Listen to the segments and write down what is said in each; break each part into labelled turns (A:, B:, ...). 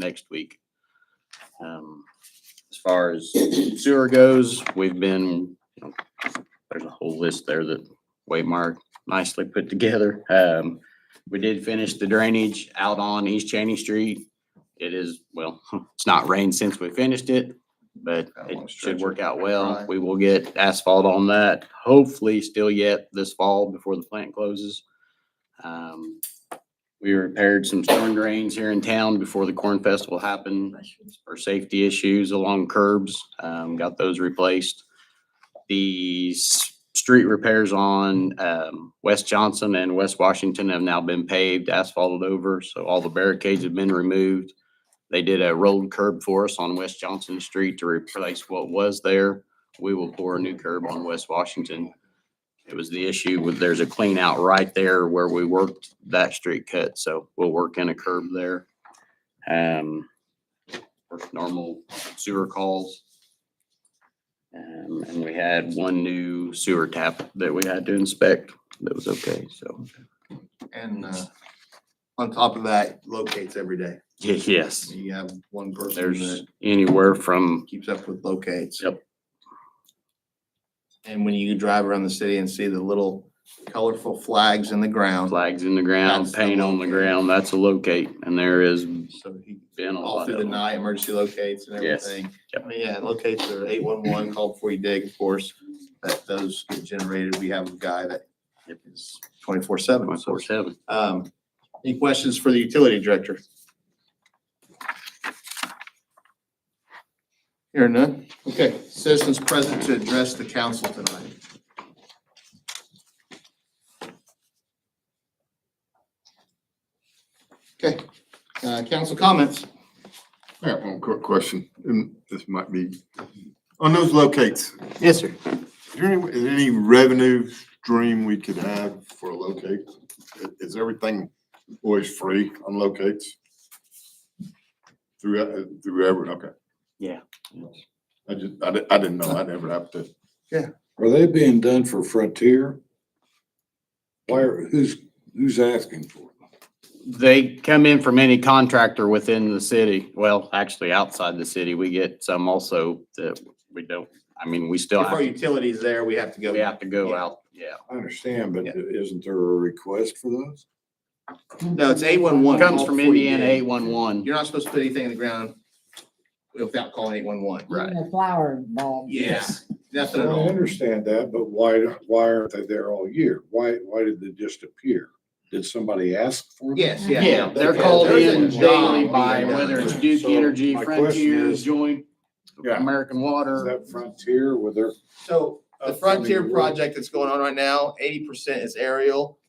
A: next week. Um, As far as sewer goes, we've been, you know, there's a whole list there that Waymark nicely put together. Um, we did finish the drainage out on East Cheney Street. It is, well, it's not rained since we finished it, but
B: Got a long
A: it should
B: stretch
A: work
B: of
A: out well.
B: dry.
A: We will get asphalt on that, hopefully still yet this fall before the plant closes. Um, we repaired some storm drains here in town before the corn festival happened for safety issues along curbs. Um, got those replaced. The s- street repairs on, um, West Johnson and West Washington have now been paved, asphalted over, so all the barricades have been removed. They did a rolled curb for us on West Johnson Street to replace what was there. We will pour a new curb on West Washington. It was the issue with, there's a clean out right there where we worked that street cut, so we'll work in a curb there. Um, course, normal sewer calls. Um, and we had one new sewer tap that we had to inspect that was okay, so.
B: And uh, on top of that, locates every day.
A: Ye- Yes,
B: You have one person
A: there's
B: that
A: anywhere from,
B: keeps up with locates.
A: Yep.
B: And when you drive around the city and see the little colorful flags in the ground,
A: flags in the ground,
B: That's the
A: paint on the
B: locate.
A: ground, that's a locate, and there has
B: so he,
A: been a
B: all
A: lot
B: through
A: of
B: the
A: them.
B: night, emergency locates and
A: Yes.
B: everything.
A: Yep.
B: I mean, yeah, locates are eight one one, call before you dig, of course, that those get generated. We have a guy that is twenty four seven.
A: Twenty-four seven.
B: Um, any questions for the utility director? Here none. Okay, citizens present to address the council tonight. Okay, uh, council comments.
C: I got one quick question, and this might be, on those locates,
B: Yes, sir.
C: is there any, is there any revenue stream we could have for a locate? I- Is everything always free on locates? Through, uh, through every, okay, I just, I didn't, I didn't know, I'd ever have to,
D: Are they being done for Frontier? Why, are- who's, who's asking for them?
A: They come in from any contractor within the city. Well, actually outside the city, we get some also that we don't, I mean, we still
B: If our
A: have,
B: utilities there, we have to go.
A: we have to go
B: Yeah.
A: out, yeah.
D: I understand, but
B: Yeah.
D: isn't there a request for those?
B: No, it's eight one one.
A: Comes from Indiana eight one one.
B: You're not supposed to put anything in the ground without calling eight one one.
A: Right.
E: Even a flower bulb.
B: Yes, nothing
D: I
B: at all.
D: understand that, but why, why aren't they there all year? Why, why did they just appear? Did somebody ask for them?
B: Yes, yeah.
A: Yeah, they're
B: Because
A: called
B: there's a
A: in
B: job
A: daily by
B: being done.
A: whether it's Duke
D: So
A: Energy,
D: my question
A: Frontier,
D: is-
A: Joint,
C: Yeah.
A: American
D: Is
A: Water.
D: that Frontier with their?
B: So the
D: Upcoming
B: Frontier
D: work.
B: project that's going on right now, eighty percent is aerial,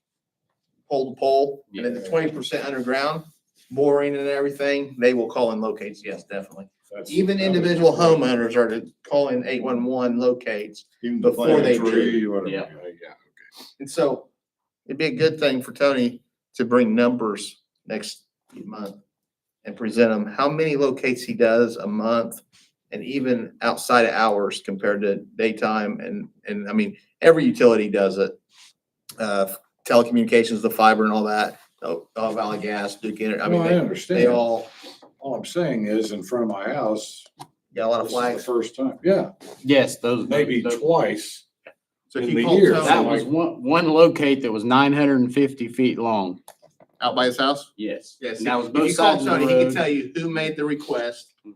B: pole to pole, and then the
D: Yeah.
B: twenty percent underground, boring and everything, they will call in locates, yes, definitely.
C: that's-
B: Even
C: that was-
B: individual homeowners are to call in eight-one-one locates,
C: Even the
B: before
C: plant
B: they
C: tree, whatever,
A: Yeah.
C: yeah.
B: and so it'd be a good thing for Tony to bring numbers next month and present them, how many locates he does a month, and even outside of hours compared to daytime, and, and, I mean, every utility does it. Uh, telecommunications, the fiber and all that, Oh, oh, Valley Gas, Duke Energy, I mean, they, they
D: understand.
B: all
D: All I'm saying is in front of my house,
B: got a lot of
D: this is the
B: flags.
D: first time, yeah,
A: Yes, those.
D: maybe
A: those-
D: twice.
B: So if
D: in
B: you
D: the
B: call
D: year,
A: That
B: Tony
A: was one, one locate that was nine hundred and fifty feet long.
B: out by his house?
A: Yes.
B: Yes.
A: And that was
B: if you
A: both
B: call
A: sides of the
B: Tony, He can
A: road.
B: tell you who made the request
A: Mhm.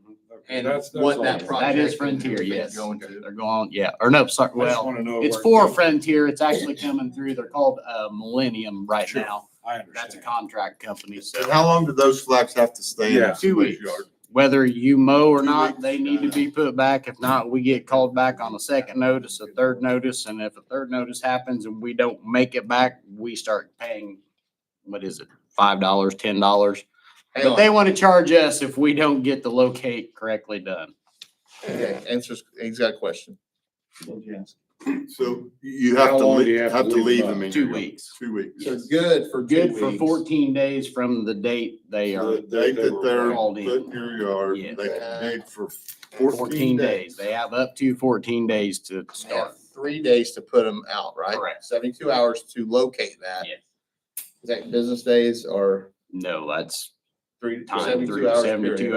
B: and
D: That's- that's
B: what
D: all.
B: that project.
A: That is
B: and
A: Frontier,
B: everything
A: yes.
B: Going to.
A: They're going, yeah, or no, sorry,
D: I just
A: well,
D: wanna know
A: it's
D: where it
A: for
D: goes.
A: Frontier. It's actually coming through. They're called, uh, Millennium right
D: Sure.
A: now.
D: I
A: That's a
D: understand.
A: contract company, so.
C: How long do those flags have to stay?
D: Yeah.
A: Two
C: Somebody's
A: weeks.
C: yard?
A: Whether you mow or
C: Two
A: not,
C: weeks.
A: they need to be put back. If not, we get called back on a second notice, a third notice, and if a third notice happens and we don't make it back, we start paying, what is it, five dollars, ten dollars?
B: Hang
A: But
B: on.
A: they want to charge us if we don't get the locate correctly done.
B: Okay, answers, he's got a question.
C: So you have
D: How
C: to,
D: long do
C: lea-
D: you have
C: have
D: to
C: to
D: leave
C: leave
D: them?
C: them in.
A: Two
C: your-
A: weeks.
C: Two weeks.
B: So good for two
A: Good for
B: weeks.
A: fourteen days from the date they are,
C: The date that they're
A: called
C: put
A: in.
C: in your yard,
A: Yes.
C: they can dig for
A: fourteen days. They have up to fourteen days to
B: They have
A: start.
B: Three days to put them out, right?
A: Correct.
B: Seventy-two hours to locate that.
A: Yes.
B: Is that business days or
A: No, that's
B: three,
A: Time,
B: seventy-two
A: three-
B: hours.
A: 72
B: period.